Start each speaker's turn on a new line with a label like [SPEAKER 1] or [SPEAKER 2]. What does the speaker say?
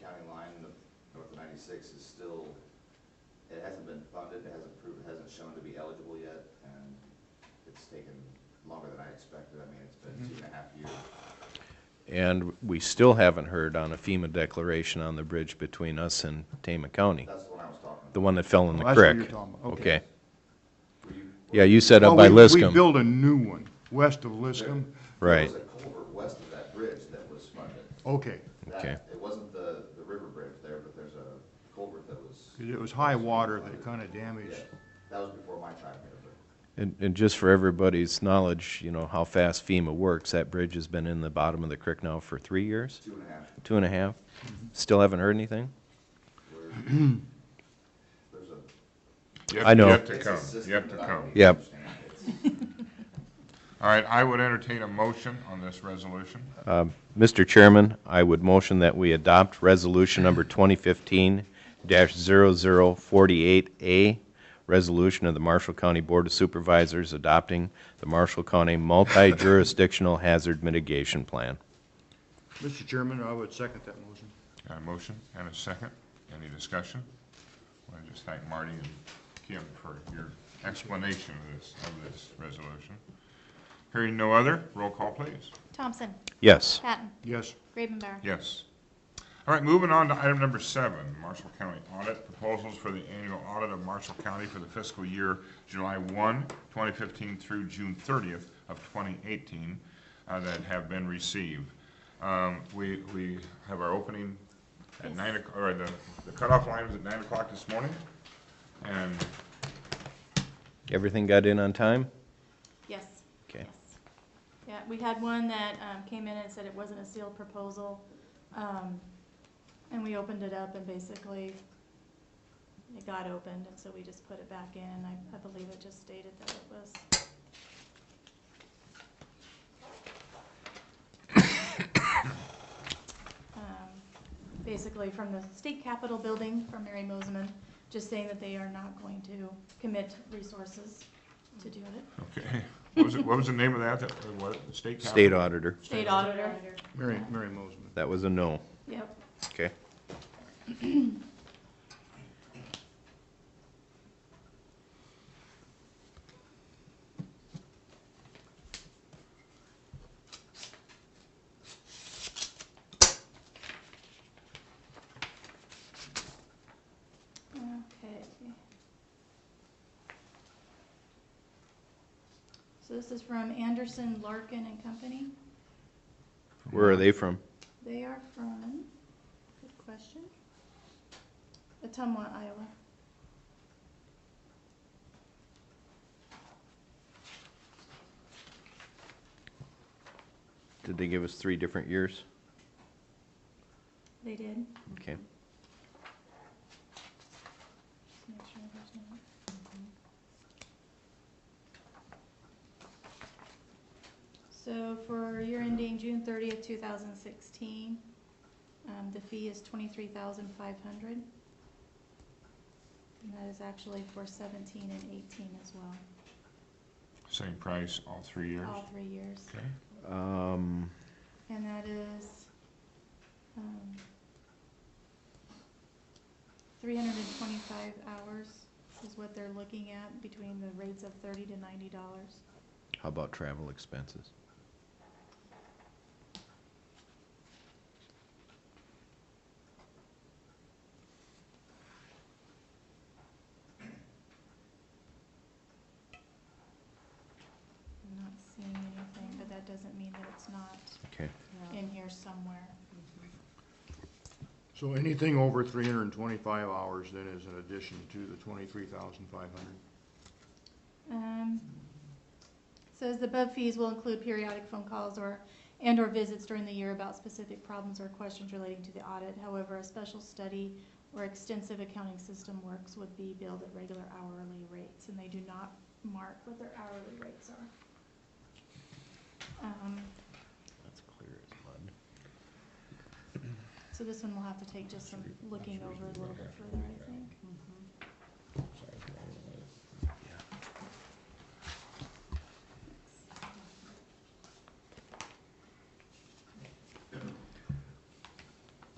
[SPEAKER 1] county line, the north ninety-six is still, it hasn't been funded, it hasn't proved, it hasn't shown to be eligible yet, and it's taken longer than I expected, I mean, it's been
[SPEAKER 2] Mm-hmm.
[SPEAKER 1] two and a half years.
[SPEAKER 3] And we still haven't heard on a FEMA declaration on the bridge between us and Tama County,
[SPEAKER 1] That's the one I was talking
[SPEAKER 3] the
[SPEAKER 1] about.
[SPEAKER 3] one that fell in the
[SPEAKER 4] That's Oh, what you're
[SPEAKER 3] creek.
[SPEAKER 4] talking about,
[SPEAKER 3] Okay.
[SPEAKER 4] okay.
[SPEAKER 1] Were you-
[SPEAKER 3] Yeah, you said up by
[SPEAKER 4] Well, we- We
[SPEAKER 3] Liscum.
[SPEAKER 4] built a new one, west of Liscum.
[SPEAKER 3] Right,
[SPEAKER 1] There was a culvert west of that bridge that was funded.
[SPEAKER 4] Okay,
[SPEAKER 1] That-
[SPEAKER 3] Okay.
[SPEAKER 1] It wasn't the, the river bridge there, but there's a culvert that was,
[SPEAKER 4] 'cause it was high water that kind of
[SPEAKER 1] yeah,
[SPEAKER 4] damaged.
[SPEAKER 1] that was before my time here, but.
[SPEAKER 3] and, and just for everybody's knowledge, you know, how fast FEMA works, that bridge has been in the bottom of the creek now for three years,
[SPEAKER 1] Two and a half.
[SPEAKER 3] two and a half?
[SPEAKER 4] Mm-hmm.
[SPEAKER 3] Still haven't heard anything?
[SPEAKER 1] We're- There's a.
[SPEAKER 2] You have
[SPEAKER 3] I
[SPEAKER 2] to-
[SPEAKER 3] know.
[SPEAKER 2] You have to
[SPEAKER 1] it's a
[SPEAKER 2] come,
[SPEAKER 1] system
[SPEAKER 2] you have to
[SPEAKER 1] that I don't
[SPEAKER 2] come.
[SPEAKER 3] Yeah. Yep.
[SPEAKER 1] understand. It's-
[SPEAKER 2] All right, I would entertain a motion on this resolution.
[SPEAKER 3] Mr. Chairman, I would motion that we adopt Resolution Number 2015-0048A, Resolution of the Marshall County Board of Supervisors adopting the Marshall County Multi-Jurisdictional Hazard Mitigation Plan.
[SPEAKER 4] Mr. Chairman, I would second that motion.
[SPEAKER 2] Got a motion and a second. Any discussion? I want to just thank Marty and Kim for your explanation of this, of this resolution. Hearing no other, roll call, please.
[SPEAKER 5] Thompson,
[SPEAKER 3] Yes.
[SPEAKER 5] Patton,
[SPEAKER 4] Yes,
[SPEAKER 5] Gravenbauer.
[SPEAKER 2] Yes. All right, moving on to item number seven, Marshall County Audit, proposals for the annual audit of Marshall County for the fiscal year July 1, 2015 through June 30th of 2018 uh, that have been received. Um, We, we have our opening at nine, o'c- or the the cutoff line was at nine o'clock this morning, and
[SPEAKER 3] Everything got in on time?
[SPEAKER 5] Yes.
[SPEAKER 3] Okay.
[SPEAKER 5] yes. Yeah, we had one that um, came in and said it wasn't a sealed proposal. um, And we opened it up and basically it got opened and so we just put it back in. And I, I believe it just stated that it was, um, basically from the state capitol building from Mary Moseman, just saying that they are not going to commit resources to do it.
[SPEAKER 2] okay. What was, it- what was the name of that, that, what, state? Capitol?
[SPEAKER 3] State auditor,
[SPEAKER 5] State auditor.
[SPEAKER 4] Mary, Mary Mosman.
[SPEAKER 3] that was a no.
[SPEAKER 5] Yep.
[SPEAKER 3] Okay.
[SPEAKER 5] Okay. So this is from Anderson, Larkin and Company.
[SPEAKER 3] Where are they from?
[SPEAKER 5] They are from, good question, Atumwa, Iowa.
[SPEAKER 3] Did they give us three different years?
[SPEAKER 5] They did.
[SPEAKER 3] Okay.
[SPEAKER 5] Just make sure there's no- So for year ending June thirtieth, two thousand sixteen, um, the fee is twenty-three thousand five hundred. And that is actually for seventeen and eighteen as well,
[SPEAKER 2] Same price all three years?
[SPEAKER 5] all three years.
[SPEAKER 2] Okay.
[SPEAKER 3] Um,
[SPEAKER 5] And that is, um, three hundred and twenty-five hours is what they're looking at between the rates of thirty to ninety dollars.
[SPEAKER 3] how about travel expenses?
[SPEAKER 5] I'm not seeing anything, but that doesn't mean that it's not
[SPEAKER 3] Okay.
[SPEAKER 5] in here somewhere.
[SPEAKER 4] So anything over three hundred and twenty-five hours then is an addition to the twenty-three thousand five hundred?
[SPEAKER 5] Um, Says the above fees will include periodic phone calls or, and/or visits during the year about specific problems or questions relating to the audit. However, a special study or extensive accounting system works would be billed at regular hourly rates, and they do not mark what their hourly rates are. Um,
[SPEAKER 3] That's clear as mud.
[SPEAKER 5] So this one we'll have to take just some looking over a little bit further, I think.